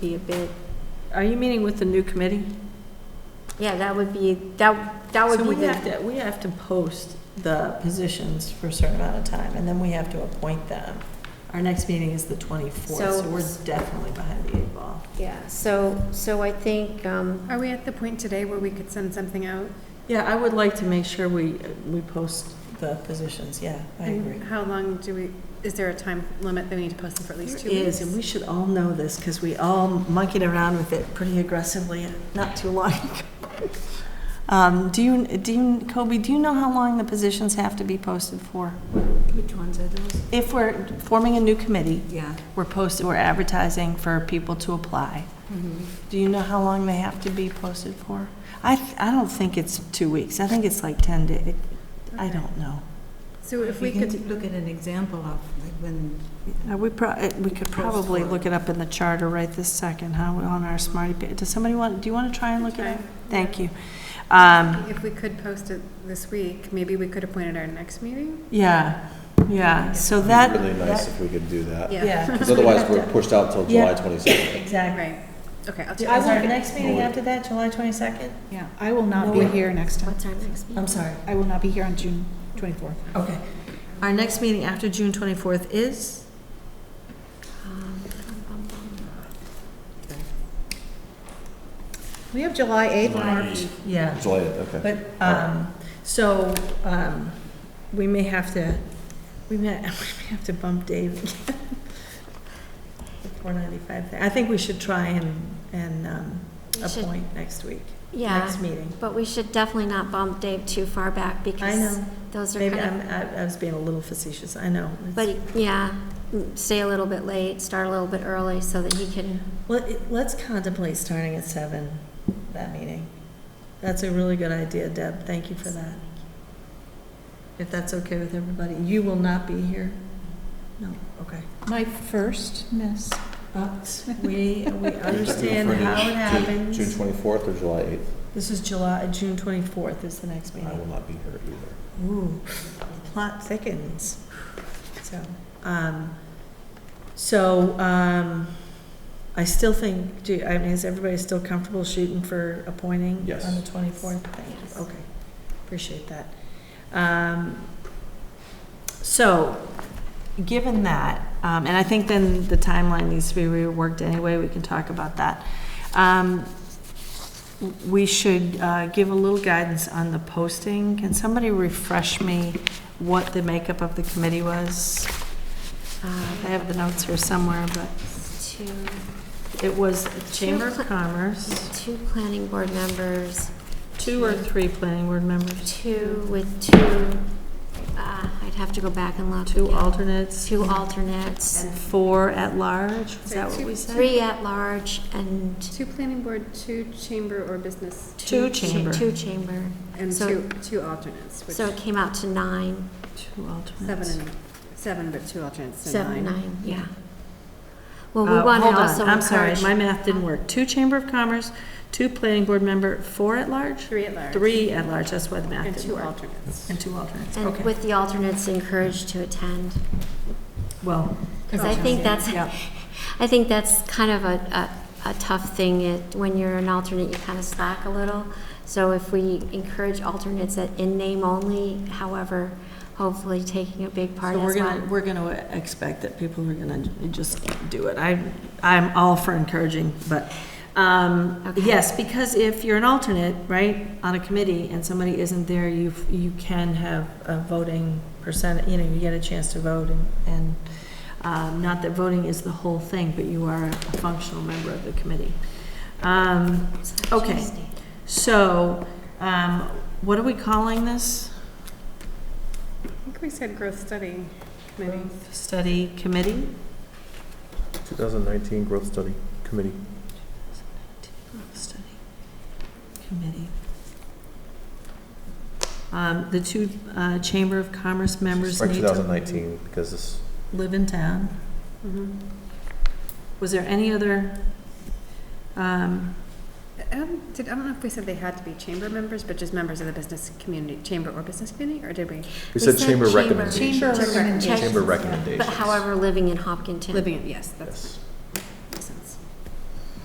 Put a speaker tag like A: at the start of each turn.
A: be a bit,
B: Are you meeting with the new committee?
A: yeah, that would be, that, that would
C: So
A: be
C: we have
A: the,
C: to, we have to post the positions for a certain amount of time, and then we have to appoint them. Our next meeting is the 24th,
A: So-
C: so we're definitely behind the eight ball.
A: yeah, so, so I think, um,
D: Are we at the point today where we could send something out?
C: Yeah, I would like to make sure we, we post the positions, yeah, I
D: And
C: agree.
D: How long do we, is there a time limit that we need to post them for at least two
C: There is,
D: weeks?
C: and we should all know this, because we all monkeyed around with it pretty aggressively not too long ago. Um, Do you, do you, Kobe, do you know how long the positions have to be posted for?
E: Which ones are those?
C: If we're forming a new committee,
E: Yeah.
C: we're posting, we're advertising for people to apply.
E: Mm-hmm.
C: Do you know how long they have to be posted for? I, th- I don't think it's two weeks. I think it's like 10 days. I don't know.
D: So if
E: We
D: we could,
E: can look at an example of like when,
C: Uh, We pro, uh, we could probably look it up in the charter right this second, huh, on our Smarty Page. Does somebody want, do you want to try and look it up?
D: Okay.
C: Thank you. Um,
D: if we could post it this week, maybe we could appoint it our next meeting?
C: Yeah, yeah, so
F: It'd
C: that.
F: be really nice
C: that-
F: if we could do that.
C: Uh, Yeah.
D: Yeah,
F: Because otherwise, we're pushed out till
C: Yeah.
F: July 22nd.
C: Exactly.
D: right. Okay, I'll
C: Is
D: check.
C: our next meeting after that, July 22nd?
G: Yeah, I will not
C: No,
G: be
C: we-
G: here next time.
A: what's our next meeting?
C: I'm sorry.
G: I will not be here on June 24th.
C: Okay. Our next meeting after June 24th is?
A: Um, bum, bum, bum.
C: Um,
G: We have July 8th and March.
C: Yeah.
F: July 8th, okay.
C: But, um, so, um, we may have to, we may, we may have to bump Dave again. The four ninety-five thing. I think we should try and, and, um,
A: We should-
C: appoint next week,
A: Yeah,
C: next meeting.
A: but we should definitely not bump Dave too far back
C: I
A: because
C: know,
A: those are
C: maybe
A: kind
C: I'm,
A: of,
C: I, I was being a little facetious, I know. It's-
A: but yeah, mm, stay a little bit late, start a little bit early so that he can,
C: Let, let's contemplate starting at seven, that meeting. That's a really good idea, Deb, thank you for that. If that's okay with everybody, you will not be here? No, okay.
G: My first miss.
C: But we, we
F: Are you
C: understand
F: referring to
C: how
F: Ju-
C: it happens.
F: June 24th or July 8th?
C: This is July, June 24th is the next
F: I will
C: meeting.
F: not be here either.
C: Ooh, the plot thickens. So, um, so, um, I still think, do, I mean, is everybody still comfortable shooting for appointing?
F: Yes.
C: On the 24th? Thank
A: Yes.
C: you. Okay, appreciate that. Um, So, given that, um, and I think then the timeline needs to be reworked anyway, we can talk about that. Um, We should uh, give a little guidance on the posting. Can somebody refresh me what the makeup of the committee was? Uh, I have the notes here somewhere, but
A: two,
C: it was the Chamber of Commerce,
A: two planning board members,
C: two or three planning board members,
A: two with two, uh, I'd have to go back and look.
C: two
A: again.
C: alternates.
A: Two alternates,
C: And four at large, is that what we said?
A: three at large and
D: Two planning board, two chamber or business,
C: Two
A: cha-
C: chamber.
A: Two chamber.
D: and
A: So-
D: two, two alternates, which,
A: So it
D: seven
A: came out to nine,
C: Two alternates.
D: and, seven, but two alternates, so
A: seven,
D: nine.
A: nine, yeah. Well, we
C: Uh,
A: want to
C: hold on,
A: also
C: I'm sorry,
A: encourage.
C: my math didn't work. Two Chamber of Commerce, two Planning Board member, four at large?
D: Three at large.
C: Three at large, that's why the math
D: And
C: didn't
D: two
C: work.
D: alternates.
C: And two alternates,
A: And
C: okay.
A: with the alternates encouraged to attend.
C: Well,
A: Because I think that's,
C: yeah,
A: I think that's kind of a, a, a tough thing. It- When you're an alternate, you kind of slack a little. So if we encourage alternates at in name only, however, hopefully taking a big part
C: so we're
A: as
C: gonna,
A: well.
C: we're gonna expect that people are gonna just do it. I, I'm all for encouraging, but, um,
A: Okay.
C: yes, because if you're an alternate, right, on a committee and somebody isn't there, you, you can have a voting percent, you know, you get a chance to vote and, and Um, Not that voting is the whole thing, but you are a functional member of the committee. Um, okay.
A: Tuesday.
C: So, um, what are we calling this?
D: I think we said growth study committee.
C: Study committee?
F: 2019 Growth Study Committee.
C: Study committee. Um, The two uh, Chamber of Commerce members
F: Or
C: need to
F: 2019, because this,
C: live in town.
D: Mhm.
C: Was there any other, um,
D: I don't, Um, did, I don't know if we said they had to be chamber members, but just members of the business community, chamber or business community, or did we?
F: we said Chamber
A: chamber.
F: recommendations.
G: Chamber
A: Check-
G: recommendations.
F: Chamber recommendations.
A: But however, living in Hopkinton.
D: Living, yes, that's,
F: Yes.